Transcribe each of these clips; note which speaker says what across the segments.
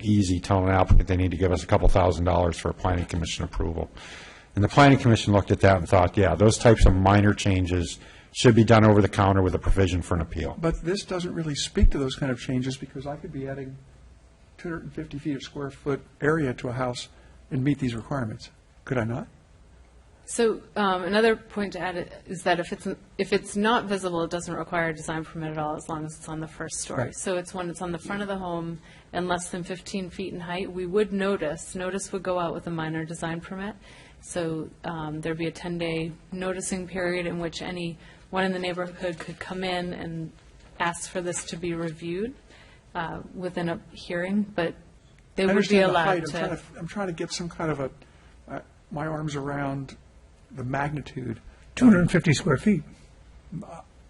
Speaker 1: easy telling an applicant they need to give us a couple thousand dollars for a planning commission approval. And the planning commission looked at that and thought, yeah, those types of minor changes should be done over the counter with a provision for an appeal.
Speaker 2: But this doesn't really speak to those kind of changes, because I could be adding 250 feet of square foot area to a house and meet these requirements, could I not?
Speaker 3: So um, another point to add is that if it's, if it's not visible, it doesn't require a design permit at all, as long as it's on the first story.
Speaker 2: Right.
Speaker 3: So it's when it's on the front of the home and less than 15 feet in height, we would notice, notice would go out with a minor design permit. So um, there'd be a 10-day noticing period in which any one in the neighborhood could come in and ask for this to be reviewed uh, within a hearing, but they
Speaker 2: I
Speaker 3: would be
Speaker 2: understand the
Speaker 3: allowed
Speaker 2: height.
Speaker 3: to.
Speaker 2: I'm trying to, I'm trying to get some kind of a, uh, my arms around the magnitude.
Speaker 4: 250 square feet.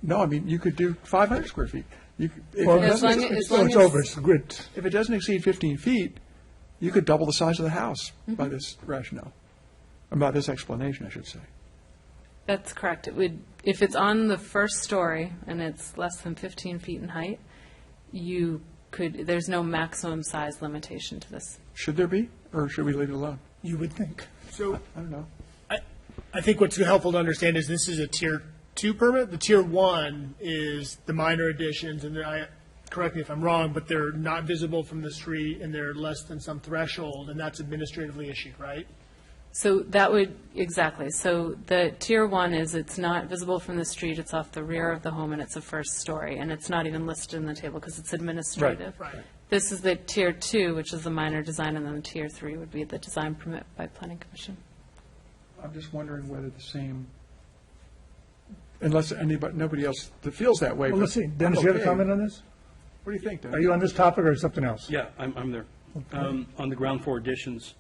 Speaker 2: No, I mean, you could do 500 square feet. You could- if it
Speaker 4: Well,
Speaker 2: doesn't-
Speaker 3: long as-
Speaker 4: it's-
Speaker 3: long
Speaker 4: It's
Speaker 3: as-
Speaker 4: over, it's the grid.
Speaker 2: If it doesn't exceed 15 feet, you could double the size of the house
Speaker 3: Mm-hmm.
Speaker 2: by this rationale, or by this explanation, I should say.
Speaker 3: That's correct. It would, if it's on the first story and it's less than 15 feet in height, you could, there's no maximum size limitation to this.
Speaker 2: Should there be, or should we leave it alone?
Speaker 4: you would think.
Speaker 5: So
Speaker 2: I don't know.
Speaker 5: I, I think what's helpful to understand is this is a tier two permit. The tier one is the minor additions, and I, correct me if I'm wrong, but they're not visible from the street and they're less than some threshold, and that's administratively issued, right?
Speaker 3: So that would, exactly. So the tier one is it's not visible from the street, it's off the rear of the home, and it's a first story, and it's not even listed in the table because it's administrative.
Speaker 5: Right, right.
Speaker 3: This is the tier two, which is the minor design, and then the tier three would be the design permit by planning commission.
Speaker 2: I'm just wondering whether the same, unless anybody, nobody else that feels that way.
Speaker 4: Well, let's see,
Speaker 2: but
Speaker 4: Dennis, you have a
Speaker 2: okay.
Speaker 4: comment on this?
Speaker 2: What do you think, Dennis?
Speaker 4: Are you on this topic or something else?
Speaker 6: Yeah, I'm, I'm there. Um, On the ground floor additions,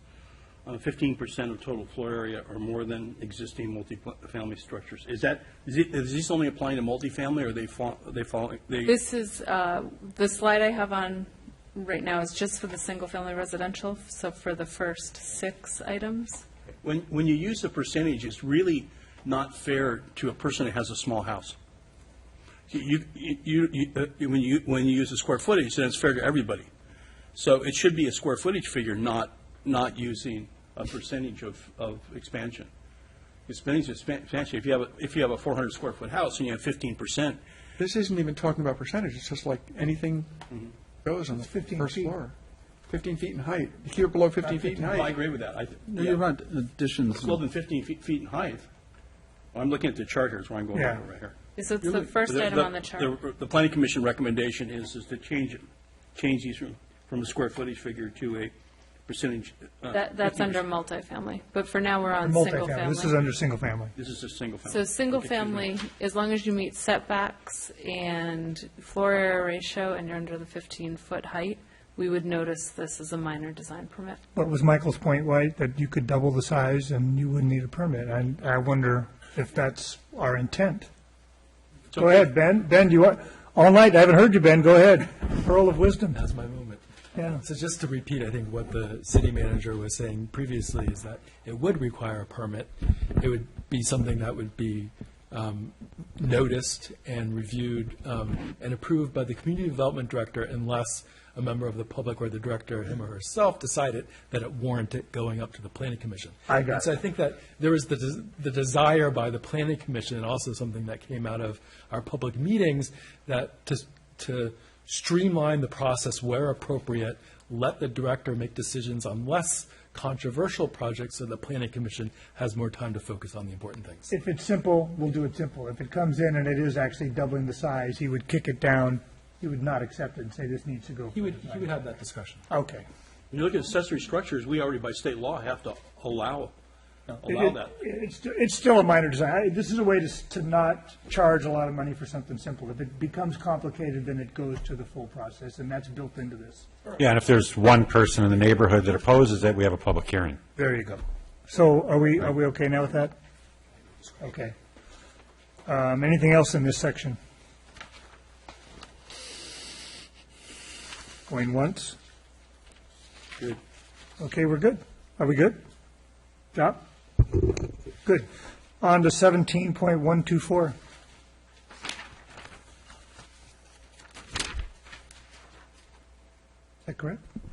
Speaker 6: uh, fifteen percent of total floor area or more than existing multifamily structures. Is that, is it- is this only applying to multifamily, or they fall, they fall, they,
Speaker 3: This is, uh, the slide I have on right now is just for the single-family residential, so for the first six items.
Speaker 6: when, when you use the percentage, it's really not fair to a person that has a small house. You, you, you- you, uh, when you, when you use the square footage, then it's fair to everybody. So it should be a square footage figure, not, not using a percentage of, of expansion. Expansion, expansion, if you have, a if you have a four hundred square foot house and you have fifteen percent,
Speaker 2: This isn't even talking about percentage, it's just like anything goes on the
Speaker 4: 15
Speaker 2: first
Speaker 4: Mm-hmm. feet.
Speaker 2: floor. 15 feet in height. If you're below 15 feet in
Speaker 6: I
Speaker 2: height,
Speaker 6: agree with that. I th-
Speaker 7: No, You're
Speaker 6: yeah.
Speaker 7: right, additions.
Speaker 6: It's more than fifteen feet, feet in height. I'm looking at the chart here, is where I'm going
Speaker 4: Yeah.
Speaker 6: with it right here.
Speaker 3: So it's the first item on the chart.
Speaker 6: The, the planning commission recommendation is, is to change it, change these from, from a square footage figure to a percentage. uh,
Speaker 3: That, that's
Speaker 6: 50%.
Speaker 3: under multifamily, but for now, we're on
Speaker 4: Multifamily, this is
Speaker 3: single-family.
Speaker 4: under single family.
Speaker 6: This is a single family.
Speaker 3: So
Speaker 6: Okay,
Speaker 3: single-family, as long as you meet setbacks and floor area ratio and you're under the 15-foot height, we would notice this as a minor design permit.
Speaker 4: But was Michael's point right, that you could double the size and you wouldn't need a permit? And I wonder if that's our intent.
Speaker 6: two.
Speaker 4: Go ahead, Ben, Ben, you are, all night, I haven't heard you, Ben, go ahead. Pearl of wisdom.
Speaker 8: That's my moment.
Speaker 4: Yeah.
Speaker 8: So just to repeat, I think what the city manager was saying previously is that it would require a permit. It would be something that would be um, noticed and reviewed um, and approved by the community development director unless a member of the public or the director, him or herself, decided that it warranted going up to the planning commission.
Speaker 4: I got
Speaker 8: And so I think that there was the, des- the desire by the planning commission, and also something that came out of our public meetings, that to, to streamline the process where appropriate, let the director make decisions on less controversial projects, so the planning commission has more time to focus on the important things.
Speaker 4: If it's simple, we'll do it simple. If it comes in and it is actually doubling the size, he would kick it down, he would not accept it and say, this needs to go.
Speaker 8: He would, he would have that discussion.
Speaker 4: Okay.
Speaker 6: When you look at accessory structures, we already by state law have to allow, allow
Speaker 4: It-
Speaker 6: that.
Speaker 4: it- It's, it's still a minor design. I- This is a way to, s- to not charge a lot of money for something simple. If it becomes complicated, then it goes to the full process, and that's built into this.
Speaker 1: Yeah, and if there's one person in the neighborhood that opposes it, we have a public hearing.
Speaker 4: There you go. So are we, are we okay now with that? Okay. Um, anything else in this section? Going once?
Speaker 6: Good.
Speaker 4: Okay, we're good. Are we good? Job? Good. On to seventeen point one two four. Is that correct?